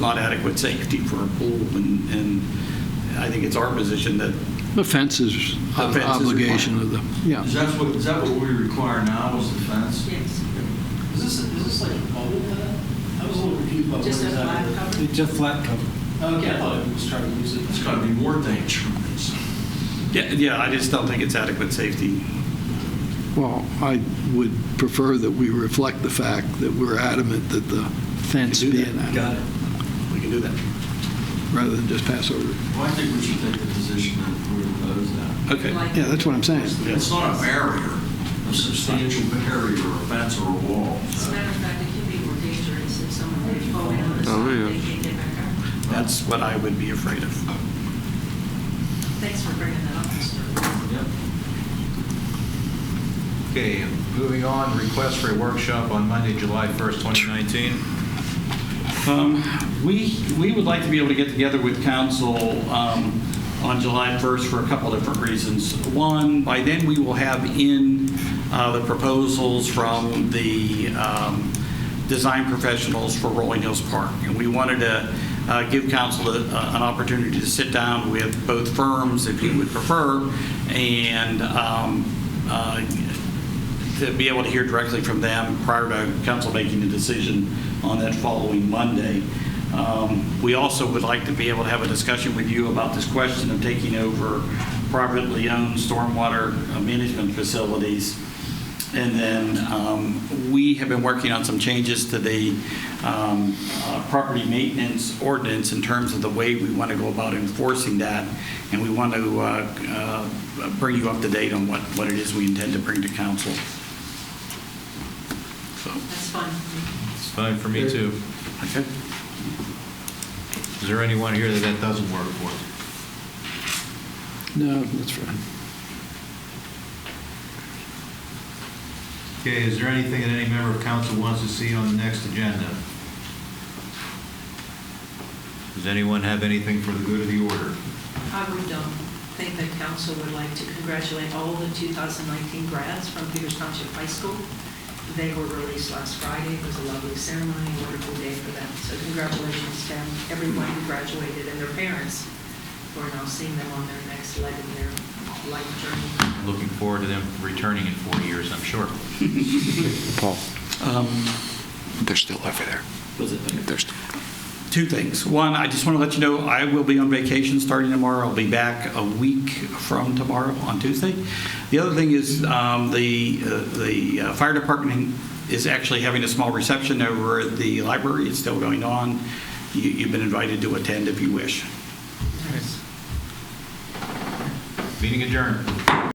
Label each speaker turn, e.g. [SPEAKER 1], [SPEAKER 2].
[SPEAKER 1] not adequate safety for a pool, and, and I think it's our position that
[SPEAKER 2] The fence is
[SPEAKER 1] The fence is
[SPEAKER 2] obligation of the, yeah.
[SPEAKER 3] Is that what, is that what we require now is the fence?
[SPEAKER 4] Yes.
[SPEAKER 5] Is this, is this like a bubble pad? I was a little confused about what
[SPEAKER 4] Just a flat
[SPEAKER 5] exactly.
[SPEAKER 4] cover?
[SPEAKER 6] It's a flat cover.
[SPEAKER 5] Okay, I thought it was trying to use it.
[SPEAKER 3] It's gotta be more dangerous.
[SPEAKER 1] Yeah, yeah, I just don't think it's adequate safety.
[SPEAKER 2] Well, I would prefer that we reflect the fact that we're adamant that the fence
[SPEAKER 1] We can
[SPEAKER 2] be
[SPEAKER 1] do
[SPEAKER 2] an
[SPEAKER 1] that.
[SPEAKER 2] act,
[SPEAKER 6] it.
[SPEAKER 1] We can do that.
[SPEAKER 2] rather than just pass over. it.
[SPEAKER 3] Well, I think we should take the position that we oppose that.
[SPEAKER 1] Okay.
[SPEAKER 4] Like-
[SPEAKER 2] Yeah, that's what I'm saying.
[SPEAKER 3] It's not a barrier, a substantial barrier, a fence or a wall.
[SPEAKER 4] As a matter of fact, it can be more dangerous if someone were falling on the
[SPEAKER 7] Oh,
[SPEAKER 4] side,
[SPEAKER 7] yeah.
[SPEAKER 4] they can't get back up.
[SPEAKER 1] That's what I would be afraid of.
[SPEAKER 4] Thanks for bringing that up, Mr. Roy.
[SPEAKER 3] Yep.
[SPEAKER 8] Okay, moving on, request for a workshop on Monday, July 1st, 2019.
[SPEAKER 1] Um, We, we would like to be able to get together with council um, on July 1st for a couple different reasons. One, by then, we will have in uh, the proposals from the um, design professionals for Rolling Hills Park. And we wanted to uh, give council a- an opportunity to sit down with both firms, if you would prefer, and um, uh, to be able to hear directly from them prior to council making a decision on that following Monday. Um, We also would like to be able to have a discussion with you about this question of taking over privately owned stormwater uh, management facilities. And then um, we have been working on some changes to the um, uh, property maintenance ordinance in terms of the way we want to go about enforcing that. And we want to uh, uh, bring you up to date on what, what it is we intend to bring to council. So,
[SPEAKER 4] That's fun.
[SPEAKER 8] It's fine for me, too.
[SPEAKER 1] okay.
[SPEAKER 8] Is there anyone here that that doesn't work for?
[SPEAKER 2] No, that's right.
[SPEAKER 8] Okay, is there anything that any member of council wants to see on the next agenda? Does anyone have anything for the good of the order?
[SPEAKER 4] I would um, think that council would like to congratulate all the 2019 grads from Peters Township High School. They were released last Friday. It was a lovely ceremony, a wonderful day for them. So congratulations to everyone who graduated and their parents. We're now seeing them on their next leg in their life journey.
[SPEAKER 8] Looking forward to them returning in four years, I'm sure.
[SPEAKER 7] Paul,
[SPEAKER 1] Um,
[SPEAKER 7] they're still over there.
[SPEAKER 1] Was it?
[SPEAKER 7] They're still.
[SPEAKER 1] Two things. One, I just want to let you know, I will be on vacation starting tomorrow. I'll be back a week from tomorrow on Tuesday. The other thing is, um, the, uh, the uh, fire department is actually having a small reception over at the library. It's still going on. You, you've been invited to attend if you wish.
[SPEAKER 8] Meeting adjourned.